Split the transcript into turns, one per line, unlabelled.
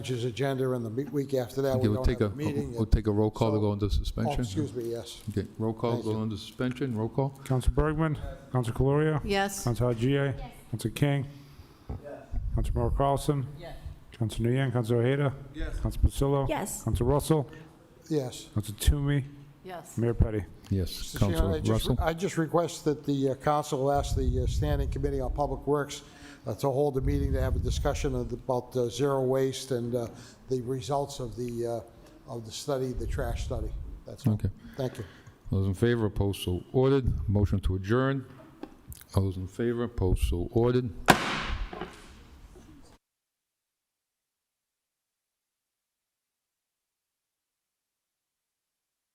which is agenda, and the me- week after that, we
Okay, we'll
don't
take
have
a,
a meeting.
we'll take a roll call to
so-
go into
Oh,
suspension.
excuse me, yes.
Okay, roll call,
Thank
go
you.
into suspension, roll call.
Counsel Bergman, Counsel Caloria,
Yes.
Counsel Haji, Counsel King, Counsel Moore Carlson, Counsel Nguyen, Counsel Ojeda, Counsel Pacillo,
Yes.
Counsel Russell,
Yes.
Counsel Toomey,
Yes.
Mayor Petty.
Yes,
Mr. Chairman,
Council
I just-
Russell.
I just request that the uh, council ask the uh, Standing Committee on Public Works uh, to hold a meeting to have a discussion of- about uh, zero waste and uh, the results of the, uh, of the study, the trash study. That's all.
Okay.
Thank you.
Those in favor, opposed, so ordered. Motion to adjourn. Those in favor, opposed, so ordered.